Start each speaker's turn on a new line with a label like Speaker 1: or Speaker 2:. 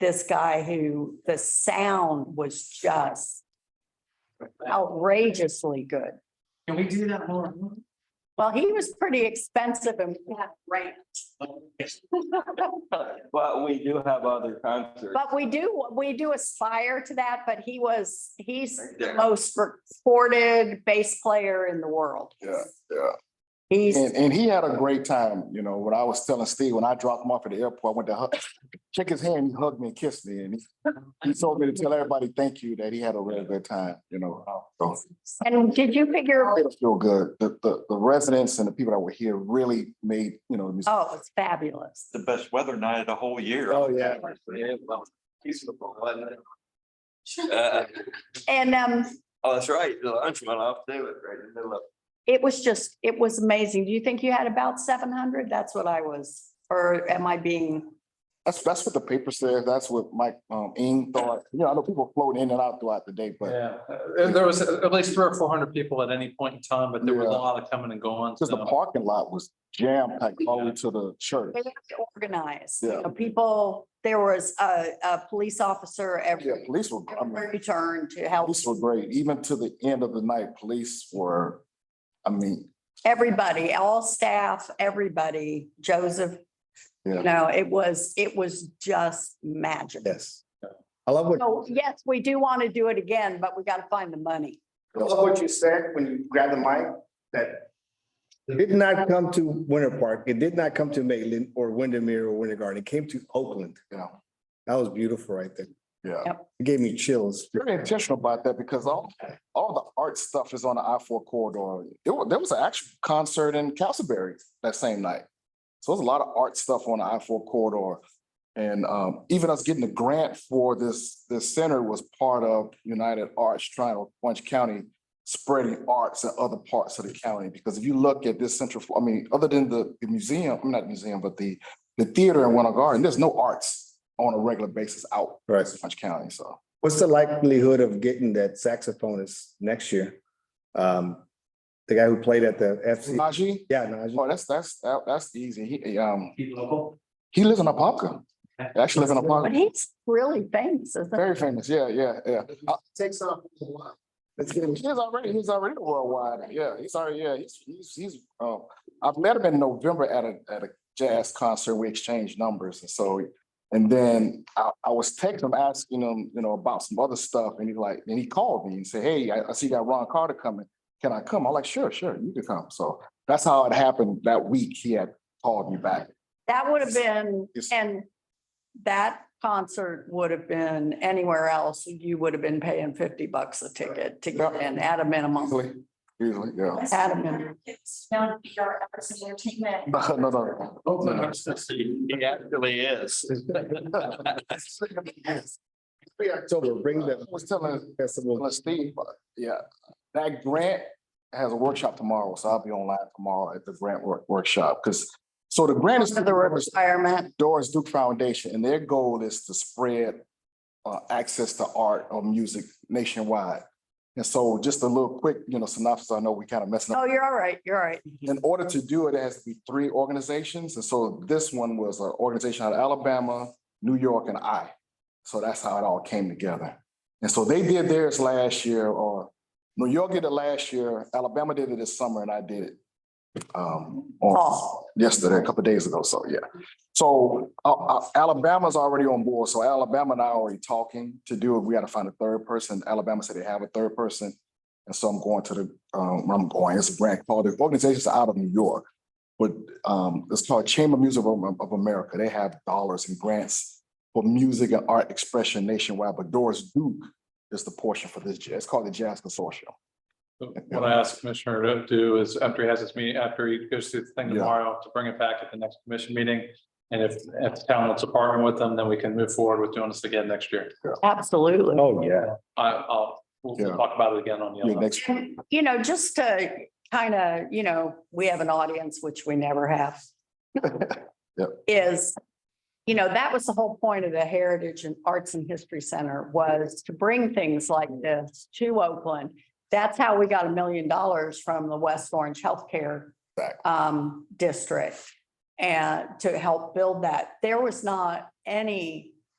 Speaker 1: this guy who the sound was just outrageously good.
Speaker 2: Can we do that more?
Speaker 1: Well, he was pretty expensive and we had right.
Speaker 3: But we do have other concerts.
Speaker 1: But we do, we do aspire to that, but he was, he's the most recorded bass player in the world.
Speaker 4: Yeah, yeah.
Speaker 1: He's,
Speaker 4: And, and he had a great time, you know, when I was telling Steve, when I dropped him off at the airport, I went to hug, shake his hand, he hugged me and kissed me, and he- he told me to tell everybody, thank you, that he had a really good time, you know. So
Speaker 1: and did you figure,
Speaker 4: it made us feel good. The, the, the residents and the people that were here really made, you know. this-
Speaker 1: oh, it's fabulous.
Speaker 5: the best weather night of the whole year.
Speaker 4: Oh, yeah.
Speaker 3: Uh,
Speaker 1: And, um,
Speaker 3: Oh, that's right, the lunch went off too, it's right in the middle of.
Speaker 1: it was just, it was amazing. Do you think you had about seven hundred? That's what I was, or am I being?
Speaker 4: That's, that's what the paper says. That's what Mike, um, Ing thought. You know, I know people floating in and out throughout the day, but
Speaker 2: Yeah, uh, there was at least three or four hundred people at any point in time, but there was a
Speaker 4: Yeah.
Speaker 2: lot of coming and going.
Speaker 4: just the
Speaker 2: so-
Speaker 4: parking lot was jam packed all the way to the church.
Speaker 1: They have to organize. You
Speaker 4: Yeah.
Speaker 1: know, People, there was a, a police officer
Speaker 4: Yeah,
Speaker 1: every,
Speaker 4: police were, I mean,
Speaker 1: every turn to help
Speaker 4: Police were great, even to the end of the night, police were, I mean,
Speaker 1: everybody, all staff, everybody, Joseph.
Speaker 4: Yeah.
Speaker 1: You know, it was, it was just magic.
Speaker 6: Yes. I love what.
Speaker 1: So yes, we do want to do it again, but we got to find the money.
Speaker 6: I love what you said when you grabbed the mic, that. Did not come to Winter Park. It did not come to Maitland or Windermere or Winter Garden. It came to Oakland.
Speaker 4: you know,
Speaker 6: That was beautiful right there.
Speaker 4: yeah.
Speaker 6: It gave me chills.
Speaker 4: Very intentional about that because all, all the art stuff is on the I four corridor. There was, there was an actual concert in Castleberry that same night. So there's a lot of art stuff on the I four corridor. And um, even us getting the grant for this, this center was part of United Arts trying to Orange County spreading arts in other parts of the county. Because if you look at this central, I mean, other than the the museum, I'm not museum, but the, the theater in Winter Garden, there's no arts on a regular basis out in
Speaker 6: Right.
Speaker 4: Orange County, so.
Speaker 6: What's the likelihood of getting that saxophonist next year? Um, the guy who played at the FC.
Speaker 4: Najee?
Speaker 6: Yeah, Najee.
Speaker 4: Oh, that's, that's, that- that's easy. He, um,
Speaker 2: Be local.
Speaker 4: he lives in Apopka. He Actually lives in
Speaker 1: But
Speaker 4: Apopka.
Speaker 1: he's really famous, isn't he?
Speaker 4: Very famous. Yeah, yeah, yeah. Uh,
Speaker 6: Takes off. Let's get him.
Speaker 4: He's already, he's already worldwide. Yeah, he's already, yeah, he's, he's, he's, um, I've met him in November at a, at a jazz concert. We exchanged numbers. And so, and then I, I was texting him, asking him, you know, about some other stuff. And he like, and he called me and said, hey, I, I see you got Ron Carter coming. Can I come? I'm like, sure, sure, you can come. So that's how it happened that week. He had called me back.
Speaker 1: That would have been,
Speaker 4: Yes.
Speaker 1: and that concert would have been anywhere else, you would have been paying fifty bucks a ticket to get in at a minimum.
Speaker 4: Usually, usually, yeah.
Speaker 1: Adam and-
Speaker 7: It's known to be our efforts in entertainment.
Speaker 4: No, no, no.
Speaker 2: Oakland.
Speaker 5: He actually is.
Speaker 6: October, bring the.
Speaker 4: I was telling-
Speaker 6: Festival.
Speaker 4: Well, Steve, uh, yeah, that grant has a workshop tomorrow, so I'll be online tomorrow at the grant work, workshop, because so the grant is to the Rivers
Speaker 1: Retirement,
Speaker 4: Doris Duke Foundation, and their goal is to spread uh, access to art or music nationwide. And so just a little quick, you know, synopsis, I know we kind of messing up
Speaker 1: oh, you're all right, you're all right.
Speaker 4: in order to do it, it has to be three organizations. And so this one was an organization out of Alabama, New York, and I. So that's how it all came together. And so they did theirs last year, or New York did it last year, Alabama did it this summer, and I did it um, on
Speaker 1: Fall.
Speaker 4: yesterday, a couple of days ago. So yeah. So uh, uh, Alabama's already on board. So Alabama and I are already talking to do it. We got to find a third person. Alabama said they have a third person. And so I'm going to the, um, I'm going, it's a brand called, the organization's out of New York. But, um, it's called Chamber of Music of, of America. They have dollars and grants for music and art expression nationwide, but Doris Duke is the portion for this, jazz. it's called the Jazz Consortium.
Speaker 2: What I asked Commissioner to do is after he has his meeting, after he goes through the thing
Speaker 4: Yeah.
Speaker 2: tomorrow, to bring it back at the next commission meeting. And if, if the town wants to partner with them, then we can move forward with doing this again next year.
Speaker 1: Absolutely.
Speaker 6: Oh, yeah.
Speaker 2: I, I'll, we'll we'll
Speaker 4: Yeah.
Speaker 2: talk about it again on the
Speaker 4: Your
Speaker 2: other.
Speaker 4: next,
Speaker 1: And, you know, just to kind of, you know, we have an audience, which we never have. Is, you know, that was the whole point of the Heritage and Arts and History Center was to bring things like this to Oakland. That's how we got a million dollars from the West Orange Healthcare
Speaker 4: Exactly.
Speaker 1: um, District and to help build that. There was not any